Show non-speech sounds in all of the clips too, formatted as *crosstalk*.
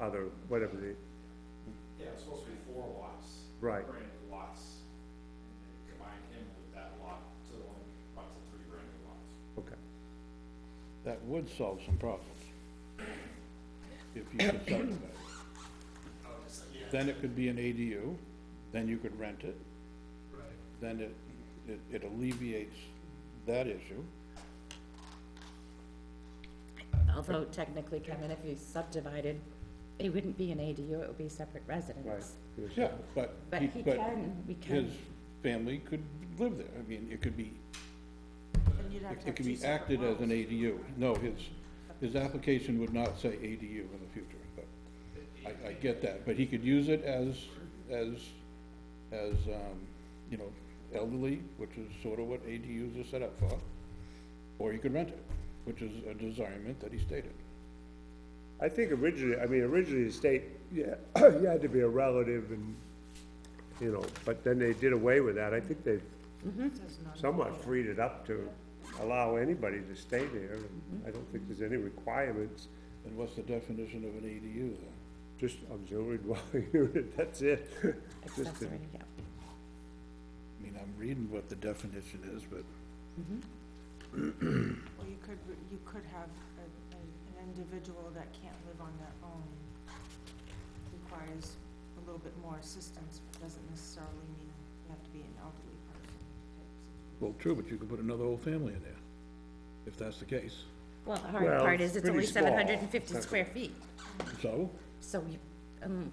other, whatever the, Yeah, it's supposed to be four lots. Right. Brand new lots. And they combined him with that lot to the one, lots of three brand new lots. okay. That would solve some problems. If you could subdivide it. Oh, just, yeah. Then it could be an ADU, then you could rent it, Right. then it, it- it alleviates that issue. Although technically, Kevin, if you subdivided, it wouldn't be an ADU, it would be separate Right. residence. Yeah, but. But he can, we His can, family could live there. I mean, it could be, And you'd have to it have could two be separate acted as an lots. ADU. No, his, his application would not say ADU in the future, but I, I get that. But he could use it as, as, as, um, you know, elderly, which is sort of what ADUs are set up for. Or he could rent it, which is a desirement that he stated. I think originally, I mean, originally the state, yeah, *coughs* you had to be a relative and, you know, but then they did away with that. I think they've Mm-hmm. somewhat freed it up to allow anybody to stay there. and I don't think there's any requirements, And what's the definition of an ADU then? just auxiliary *laughs* dwelling unit, that's it. Just a- accessory, yeah. I mean, I'm reading what the definition is, but Well, you could, you could have a, a- an individual that can't live on their own, requires a little bit more assistance, but doesn't necessarily mean you have to be an elderly person. Well, true, but you could put another whole family in there, if that's the case. Well, the Well, hard part it's is it's pretty only small. seven hundred and fifty square feet, So, so you, um,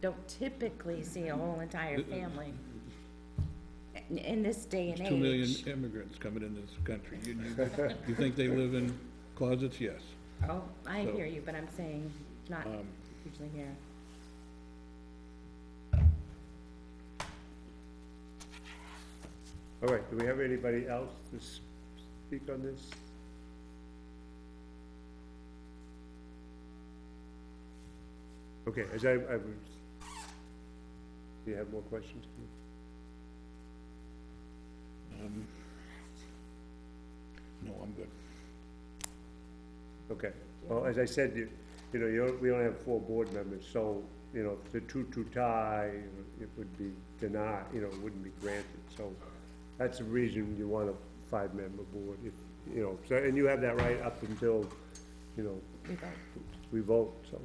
don't typically see a whole entire family in, in this day and there's two million age. immigrants coming in this country. You, you, you think they live in closets? Yes. Oh, I So- hear you, but I'm saying not um, usually here. All right, do we have anybody else to s- speak on this? Okay, as I, I was, do you have more questions? Um, No, I'm good. Okay, well, as I said, you, you know, you, we only have four board members, so, you know, if the two-two tie, it would be denied, you know, it wouldn't be granted, so that's the reason you want a five-member board, if, you know, so, and you have that right up until, you know, We vote. we vote, so.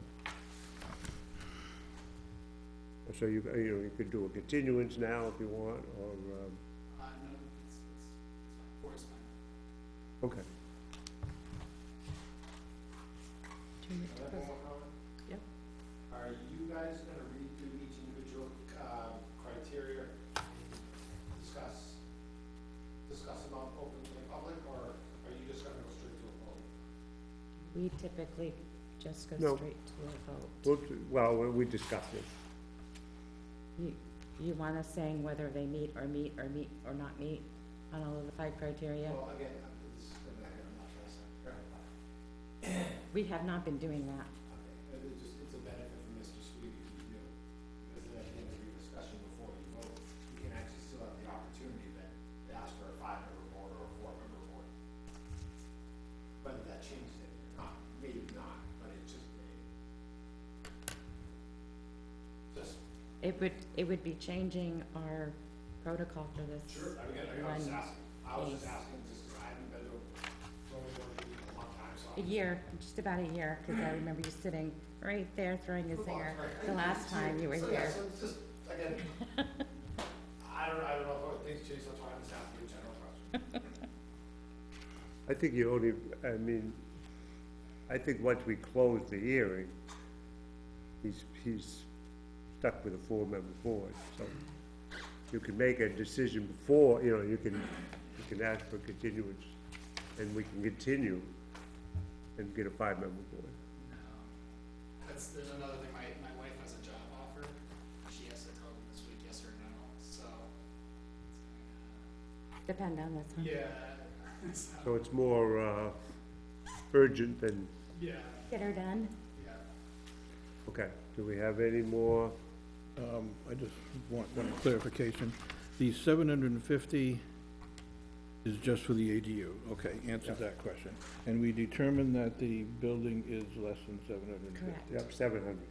So you, you know, you could do a continuance now if you want, or, um, Uh, no, it's, it's, four is fine. okay. Two million. Can I have one more comment? Yep. Are you guys gonna read through each individual, uh, criteria, discuss, discuss them out open to the public, or are you just gonna go straight to a vote? We typically just go No. straight to a vote. Well, t- Well, we- we discussed it. You, you want us saying whether they meet or meet or meet or not meet on all of the five criteria? Well, again, I'm, this is gonna, I'm not trying to sound paranoid. We have not been doing that. Okay, But it's just, it's a benefit for Mr. Sweetie if you do, because then at the end of your discussion before you vote, you can actually still have the opportunity then to ask for a five-member board or a four-member board. Whether that changes it or not, maybe not, but it just may. Just, It would, it would be changing our protocol for this. sure, I mean, I was just One asking, I was just is- asking, just 'cause I haven't been to a zoning board meeting in a long time, so. A year, just about a year, because I remember you sitting right there throwing a zinger the last time you were So, yeah, here. so it's just, *laughs* again, I don't, I don't know if things change, that's why I'm just asking a general question. *laughs* I think you only, I mean, I think once we close the hearing, he's, he's stuck with a four-member board, so you can make a decision before, you know, you can, you can ask for continuance, and we can continue and get a five-member board. That's, there's another thing, my, my wife has a job offer, she has to tell them this week, yes or no, so. Depend on this, huh? Yeah, it's not- So it's more, uh, urgent than, yeah, Get her done. yeah. okay, do we have any more? Um, I just want one clarification. The seven hundred and fifty is just for the ADU. Okay, answers that question. And we determined that the building is less than seven hundred and fifty. Correct. Yep, seven hundred.